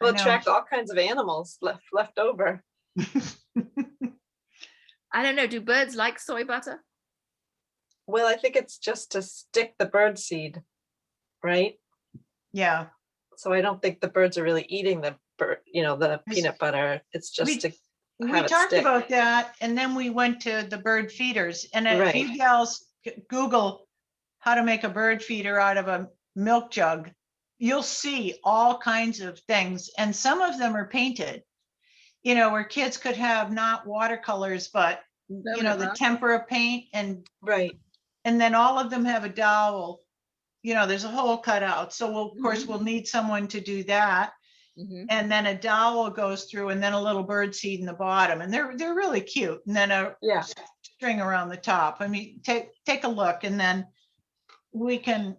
We'll know. attract all kinds of animals left left over. I don't know. Do birds like soy butter? Well, I think it's just to stick the bird seed, right? Yeah, So I don't think the birds are really eating the bird, you know, the Yes. peanut butter. It's We- just to, we Have it talked stick. about that and then we went to the bird feeders and if you Right. gals g- Google how to make a bird feeder out of a milk jug, you'll see all kinds of things and some of them are painted. You know, where kids could have not watercolors, but you know, the tempera paint and right. And then all of them have a dowel. You know, there's a hole cut out. So we'll, of Mm-hmm. course, we'll need someone to do that. Mhm. And then a dowel goes through and then a little bird seed in the bottom. And they're, they're really cute. And then a Yeah. string around the top. I mean, take, take a look and then we can,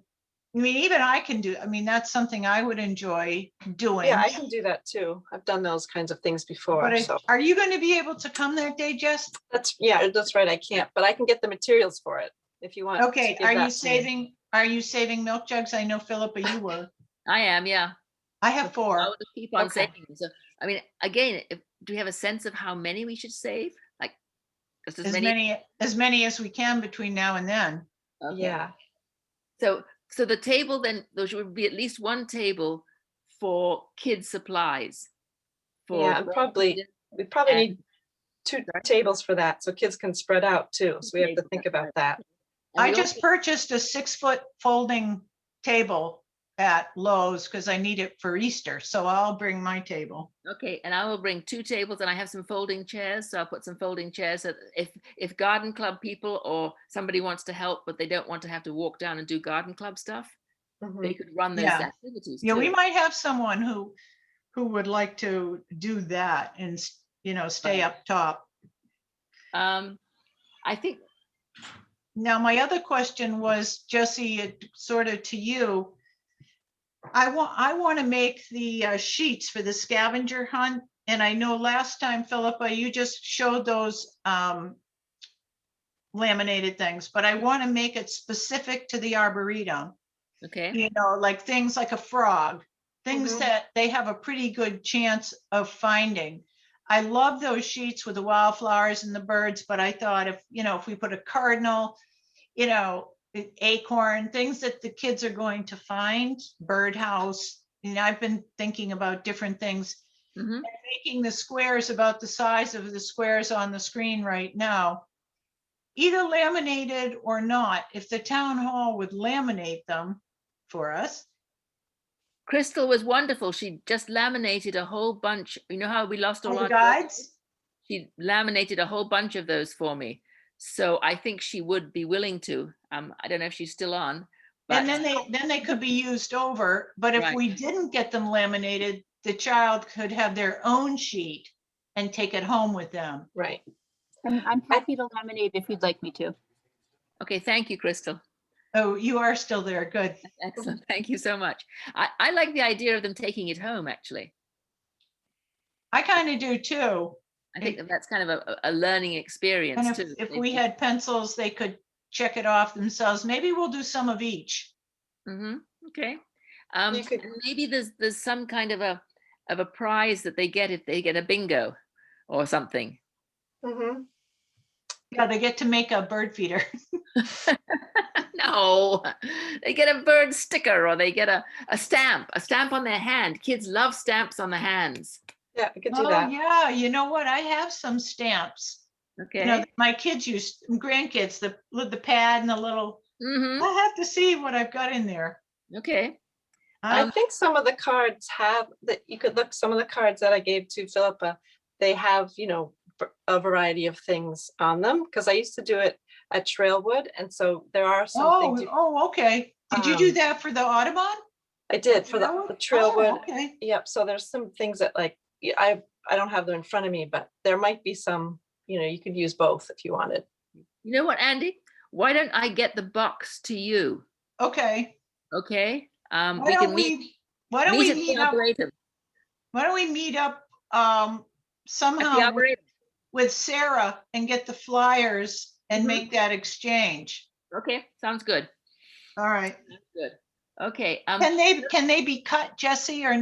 I mean, even I can do, I mean, that's something I would enjoy doing. Yeah, I can do that too. I've done those kinds of things But before. I- So are you going to be able to come that day, Jess? that's, yeah, that's right. I can't, but I can get the materials for it if you want. to Okay, give that are you to me. saving, are you saving milk jugs? I know Philippa, you were. I am, yeah. I have four. I would just keep on Okay. saving. them. So, I mean, again, if, do we have a sense of how many we should save? Like, just as as many? many, as many as we can between now and then. Okay. Yeah, So, so the table then, there should be at least one table for kids' supplies. for Yeah, and bird probably feeders we probably and- need two tables for that so kids can spread out too. So we have to Tables, think that's right. about that. and I we also- just purchased a six foot folding table at Lowe's because I need it for Easter. So I'll bring my table. Okay, and I will bring two tables and I have some folding chairs, so I'll put some folding chairs. So that if, if garden club people or somebody wants to help, but they don't want to have to walk down and do garden club stuff, they Mhm. could run those Mm-hmm. Yeah. activities. Yeah, we too. might have someone who, who would like to do that and, s- you know, stay up top. Um, I think, Now, my other question was, Jesse, it sort of to you. I want, I want to make the uh, sheets for the scavenger hunt. And I know last time, Philippa, you just showed those um, laminated things, but I want to make it specific to the Arboretum. okay, You know, like things like a frog, things Mhm. that they have a pretty good chance of finding. I love those sheets with the wildflowers and the birds, but I thought if, you know, if we put a cardinal, you know, a- acorn, things that the kids are going to find, birdhouse, you know, I've been thinking about different things. mhm, Making the squares about the size of the squares on the screen right now. Either laminated or not, if the town hall would laminate them for us. Crystal was wonderful. She just laminated a whole bunch. You know how we lost all All our the jobs? guides, She laminated a whole bunch of those for me. So I think she would be willing to. Um, I don't know if she's still on. but- and then they, then they could be used over, but if Right. we didn't get them laminated, the child could have their own sheet and take it home with them. Right. I'm, I'm happy to laminate if you'd like me to. Okay, thank you, Crystal. Oh, you are still there, good. Excellent. Thank you so much. I, I like the idea of them taking it home, actually. I kind of do too. I think Mm. that that's kind of a, a a learning experience And if, too. if we had pencils, they could check it off themselves. Maybe we'll do some of each. hmm okay. Um, You could- and maybe there's, there's some kind of a, of a prize that they get if they get a bingo or something. Mhm. Yeah, they get to make a bird feeder. No, they get a bird sticker or they get a, a stamp, a stamp on their hand. Kids love stamps on the hands. Yeah, we could do Oh, that. yeah, you know what? I have some stamps. You know, Okay. my kids used, grandkids, the, with the pad and the little, hmm I'll have to see what I've got in there. Okay. I- I think some of the cards have that you could look, some of the cards that I gave to Philippa, they have, you know, v- a variety of things on them because I used to do it at Trailwood. And so there are some Oh, things you- oh, okay. Did you do Um, that for the Audubon? I did for the the Trailwood. Oh, Okay, Yep. So there's some things that like, y- I, I don't have them in front of me, but there might be some, you know, you could use both if you wanted. You know what, Andy? Why don't I get the box to you? okay. Okay. Um, Why we don't can meet. we, why don't we at meet the up, Arboretum, why don't we meet up, um, at the somehow with- Arboretum. with Sarah and get the flyers and Mhm. make that exchange? Okay, sounds good. All right. Good. Okay. Um, Can they, can they be cut, Jesse, or